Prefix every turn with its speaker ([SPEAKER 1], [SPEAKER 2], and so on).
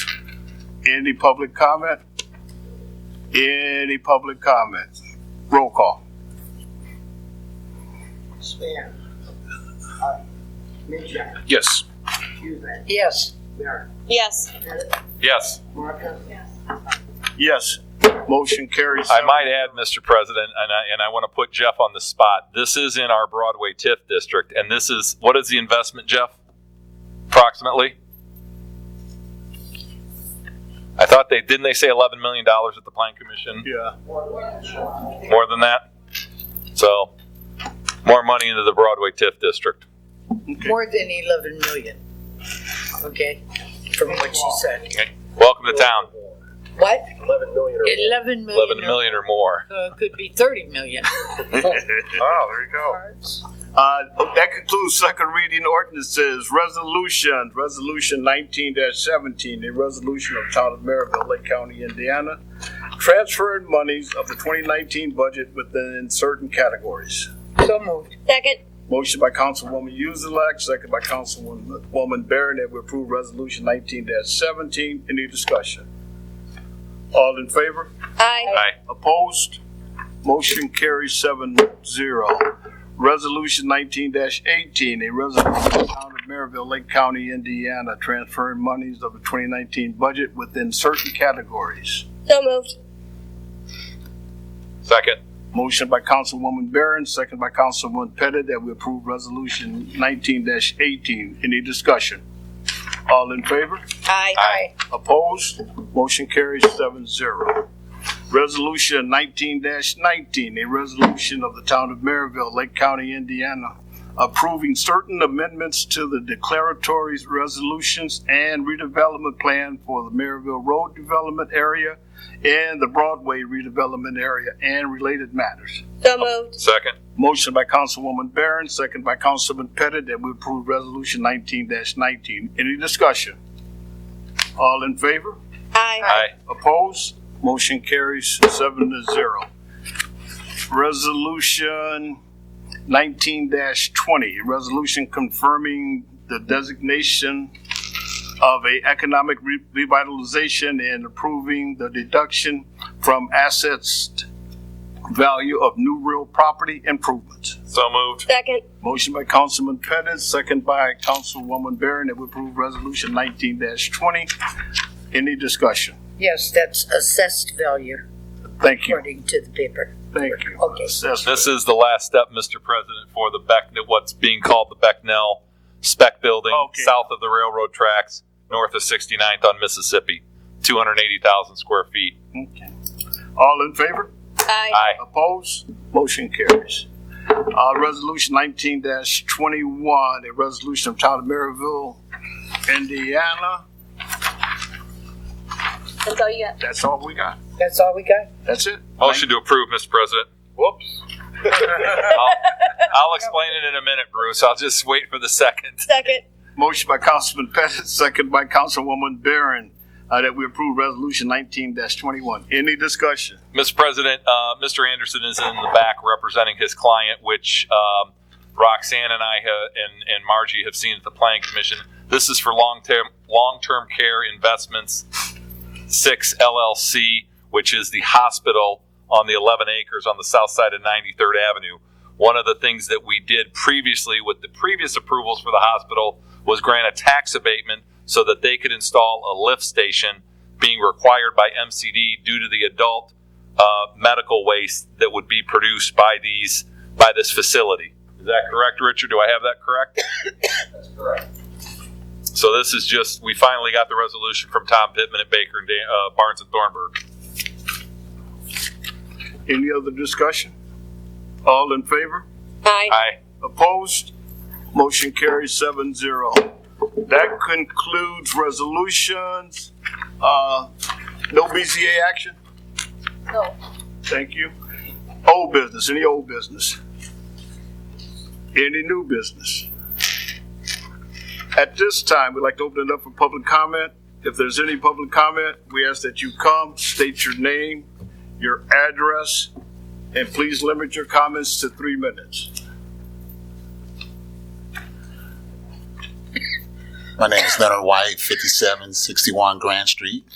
[SPEAKER 1] Any public comment? Any public comments? Roll call.
[SPEAKER 2] Span. Hart. Minchuk.
[SPEAKER 3] Yes.
[SPEAKER 2] Huzik.
[SPEAKER 4] Yes.
[SPEAKER 2] Merrick.
[SPEAKER 5] Yes.
[SPEAKER 2] Pettit.
[SPEAKER 3] Yes.
[SPEAKER 2] Marcus.
[SPEAKER 1] Yes. Motion carries.
[SPEAKER 3] I might add, Mr. President, and I, and I want to put Jeff on the spot. This is in our Broadway TIF district, and this is, what is the investment, Jeff? Approximately? I thought they, didn't they say $11 million at the Plan Commission?
[SPEAKER 1] Yeah.
[SPEAKER 3] More than that? So, more money into the Broadway TIF district.
[SPEAKER 4] More than 11 million. Okay, from what you said.
[SPEAKER 3] Welcome to town.
[SPEAKER 4] What?
[SPEAKER 6] 11 million or
[SPEAKER 4] 11 million.
[SPEAKER 3] 11 million or more.
[SPEAKER 4] Uh, could be 30 million.
[SPEAKER 6] Oh, there you go.
[SPEAKER 1] Uh, that concludes second reading ordinances, resolution, resolution nineteen seventeen, a resolution of Town of Maryville, Lake County, Indiana, transferring monies of the twenty nineteen budget within certain categories.
[SPEAKER 4] So moved.
[SPEAKER 5] Second.
[SPEAKER 1] Motion by Councilwoman Yuzelak, second by Councilwoman Barron, that we approve Resolution nineteen seventeen. Any discussion? All in favor?
[SPEAKER 5] Aye.
[SPEAKER 3] Aye.
[SPEAKER 1] Opposed? Motion carries seven zero. Resolution nineteen eighteen, a resolution of the Town of Maryville, Lake County, Indiana, transferring monies of the twenty nineteen budget within certain categories.
[SPEAKER 5] So moved.
[SPEAKER 3] Second.
[SPEAKER 1] Motion by Councilwoman Barron, second by Councilwoman Pettit, that we approve Resolution nineteen eighteen. Any discussion? All in favor?
[SPEAKER 5] Aye.
[SPEAKER 3] Aye.
[SPEAKER 1] Opposed? Motion carries seven zero. Resolution nineteen nineteen, a resolution of the Town of Maryville, Lake County, Indiana, approving certain amendments to the declaratory resolutions and redevelopment plan for the Maryville Road Development Area and the Broadway redevelopment area and related matters.
[SPEAKER 5] So moved.
[SPEAKER 3] Second.
[SPEAKER 1] Motion by Councilwoman Barron, second by Councilman Pettit, that we approve Resolution nineteen nineteen. Any discussion? All in favor?
[SPEAKER 5] Aye.
[SPEAKER 3] Aye.
[SPEAKER 1] Opposed? Motion carries seven to zero. Resolution nineteen twenty, resolution confirming the designation of a economic re- revitalization and approving the deduction from assets value of new real property improvements.
[SPEAKER 3] So moved.
[SPEAKER 5] Second.
[SPEAKER 1] Motion by Councilman Pettis, second by Councilwoman Barron, that we approve resolution nineteen twenty. Any discussion?
[SPEAKER 4] Yes, that's assessed value
[SPEAKER 1] Thank you.
[SPEAKER 4] according to the paper.
[SPEAKER 1] Thank you.
[SPEAKER 4] Okay.
[SPEAKER 1] Assessment.
[SPEAKER 3] This is the last step, Mr. President, for the Beck, what's being called the Becknell spec building,
[SPEAKER 1] Okay.
[SPEAKER 3] south of the railroad tracks, north of 69th on Mississippi, 280,000 square feet.
[SPEAKER 1] Okay. All in favor?
[SPEAKER 5] Aye.
[SPEAKER 3] Aye.
[SPEAKER 1] Opposed? Motion carries. Uh, resolution nineteen twenty-one, a resolution of Town of Maryville, Indiana.
[SPEAKER 5] That's all you got.
[SPEAKER 1] That's all we got.
[SPEAKER 4] That's all we got?
[SPEAKER 1] That's it.
[SPEAKER 3] Motion to approve, Mr. President.
[SPEAKER 1] Whoops.
[SPEAKER 3] I'll, I'll explain it in a minute, Bruce. I'll just wait for the second.
[SPEAKER 5] Second.
[SPEAKER 1] Motion by Councilman Pettit, second by Councilwoman Barron, uh, that we approve resolution nineteen twenty-one. Any discussion?
[SPEAKER 3] Mr. President, uh, Mr. Anderson is in the back representing his client, which um, Roxanne and I ha- and, and Margie have seen at the Planning Commission. This is for long term long term care investments six LLC, which is the hospital on the 11 acres on the south side of 93rd Avenue. One of the things that we did previously with the previous approvals for the hospital was grant a tax abatement so that they could install a lift station being required by MCD due to the adult uh, medical waste that would be produced by these by this facility. Is that correct, Richard? Do I have that correct? That's correct. So this is just we finally got the resolution from Tom Pittman at Baker and Dan, uh, Barnes and Thornburg.
[SPEAKER 1] Any other discussion? All in favor?
[SPEAKER 5] Aye.
[SPEAKER 3] Aye.
[SPEAKER 1] Opposed? Motion carries seven zero. That concludes resolutions. Uh, no BZA action?
[SPEAKER 5] No.
[SPEAKER 1] Thank you. Old business, any old business? Any new business? At this time, we'd like to open it up for public comment. If there's any public comment, we ask that you come, state your name, your address, and please limit your comments to three minutes.
[SPEAKER 7] My name is Leonard White, 5761 Grand Street.